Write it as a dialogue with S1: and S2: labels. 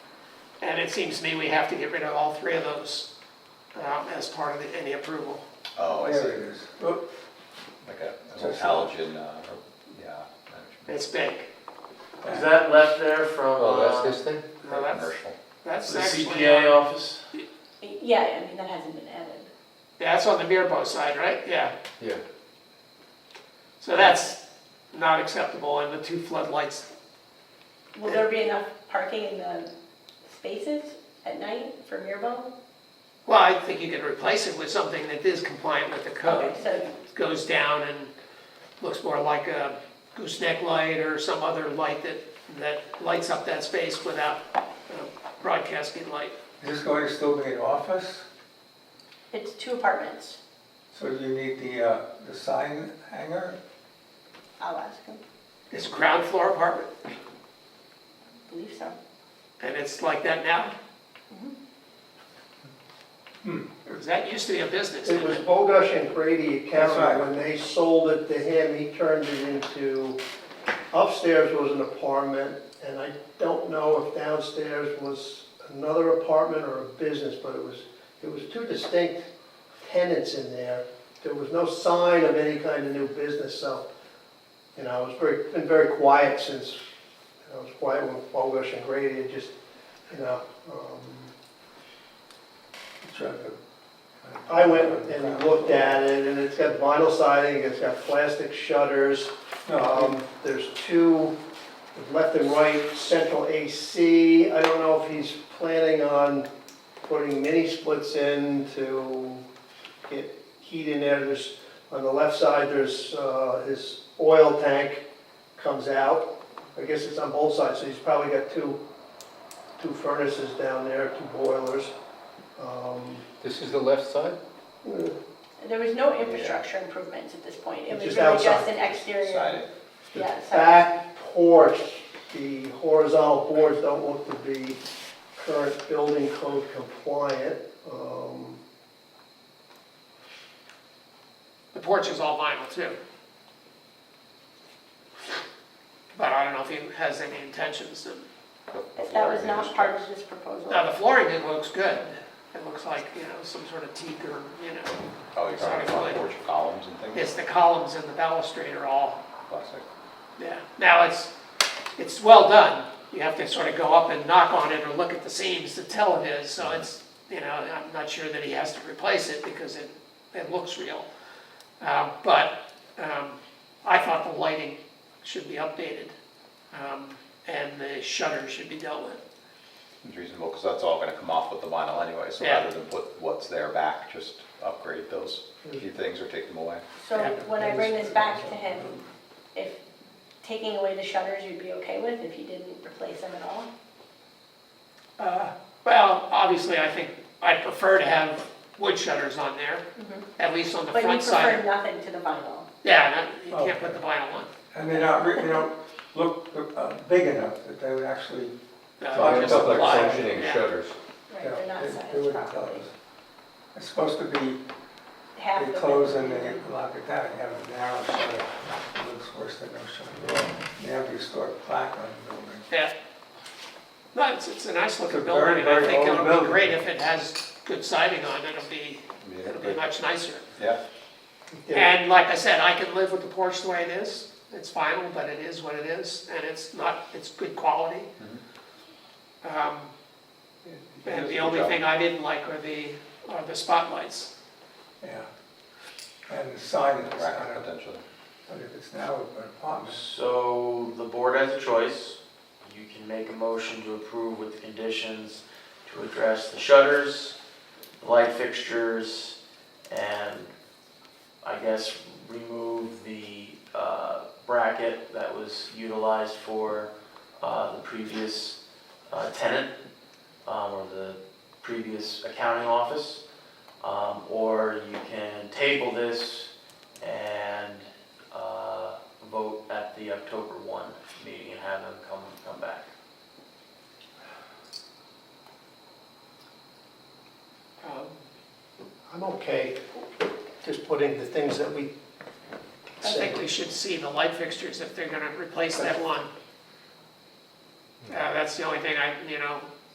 S1: And it seems to me we have to get rid of all three of those um, as part of the- any approval.
S2: Oh, I see.
S3: There it is.
S2: Like a an old halogen, uh, or- yeah. that
S1: It's big.
S4: Is that left there from,
S5: Oh,
S4: uh,
S5: that's this thing?
S2: should be
S1: No, that's,
S2: Commercial.
S1: that's
S4: the
S1: actually,
S4: CPA
S1: on-
S4: office?
S6: Yeah, I mean, that hasn't been added.
S1: that's on the Mirbo side, right? Yeah.
S5: Yeah.
S1: So that's not acceptable and the two floodlights,
S6: Will there be enough parking in the spaces at night for Mirbo?
S1: well, I think you could replace it with something that is compliant with the code.
S6: Okay, so,
S1: Goes down and looks more like a gooseneck light or some other light that, that lights up that space without uh, broadcasting light.
S3: Is this going to still be an office?
S6: it's two apartments,
S3: So you need the, uh, the sign hanger?
S6: I'll ask him,
S1: It's ground floor apartment.
S6: believe so.
S1: And it's like that now? Because that used to be a business,
S7: Hmm. It
S1: didn't
S7: was
S1: it?
S7: Bogush and Brady
S3: That's right.
S7: Accounting, when they sold it to him, he turned it into, upstairs was an apartment, and I don't know if downstairs was another apartment or a business, but it was, it was two distinct tenants in there. There was no sign of any kind of new business, so, you know, it's very, been very quiet since, you know, it was quiet when Bogush and Brady, it just, you know, um,
S3: Try to-
S7: I went and looked at it, and it's got vinyl siding, it's got plastic shutters.
S3: No,
S7: Um, There's two, left and right, central AC. I don't know if he's planning on putting mini splits in to get heat in there. There's, on the left side, there's uh, his oil tank comes out. I guess it's on both sides, so he's probably got two, two furnaces down there, two boilers. Um,
S5: This is the left side?
S6: There was no infrastructure improvements at this point, it was
S7: Just
S6: really just
S7: outside.
S6: an exterior.
S2: Sided.
S6: Yeah, so
S7: back porch, the horizontal boards don't look to be current building code compliant. Um,
S1: The porch is all vinyl too. But I don't know if he has any intentions of,
S6: but that was not part of this proposal.
S1: now the flooring, it looks good. It looks like, you know, some sort of teak or, you know,
S2: Oh, you're talking
S1: Sorry.
S2: about porch columns and things?
S1: it's the columns and the balustrade are all,
S2: Classic.
S1: yeah. Now it's, it's well done. You have to sort of go up and knock on it or look at the seams to tell it is, so it's, you know, I'm not sure that he has to replace it because it, it looks real. Uh, But um, I thought the lighting should be updated um, and the shutters should be dealt with.
S2: It's reasonable, because that's all gonna come off with the vinyl anyway, so
S1: Yeah.
S2: rather than put what's there back, just upgrade those few things or take them away.
S6: So when I bring this back to him, if taking away the shutters, you'd be okay with, if you didn't replace them at all?
S1: Uh, Well, obviously, I think I'd prefer to have wood shutters on there, at least on Mm-hmm. the
S6: But you
S1: front
S6: prefer
S1: side.
S6: nothing to the vinyl.
S1: Yeah, no, you can't put the vinyl on.
S3: And they don't, re- they don't look uh, big enough that they would actually,
S1: Uh,
S3: So I
S1: just
S3: looked up,
S1: the
S5: like
S1: ply,
S5: functioning
S1: yeah.
S5: shutters.
S6: Right,
S3: you
S6: they're
S3: know,
S6: not
S3: they- they
S6: sized
S3: wouldn't tell
S6: properly.
S3: us. It's supposed to be,
S6: Half
S3: they
S6: the
S3: close and
S6: width.
S3: they lock it down, you have a narrow shutter. It looks worse than no shutter at all. They have to store a plaque on the building.
S1: Yeah. No, it's, it's a nice looking
S3: It's a
S1: building,
S3: very,
S1: and I
S3: very
S1: think
S3: old
S1: it'll be
S3: building.
S1: great if it has good siding on, it'll be, it'll be much nicer.
S2: Yeah,
S7: yeah,
S1: And like I said, I can live with the porch the way it is, it's final, but it is what it is, and it's not, it's good quality.
S3: Mm-hmm.
S1: Um, And the only thing I didn't like are the, are the spotlights.
S3: Yeah. And the sign is, I
S2: rack
S3: don't know,
S2: potentially.
S3: but if it's now an apartment,
S4: Um, So the board has a choice. You can make a motion to approve with the conditions to address the shutters, the light fixtures, and I guess remove the uh, bracket that was utilized for uh, the previous uh, tenant um, or the previous accounting office. Um, Or you can table this and uh, vote at the October 1 meeting and have them come, come back.
S1: Um,
S7: I'm okay just putting the things that we
S1: I think we
S7: said.
S1: should see the light fixtures if they're gonna replace that one. Uh, that's the only thing I, you know,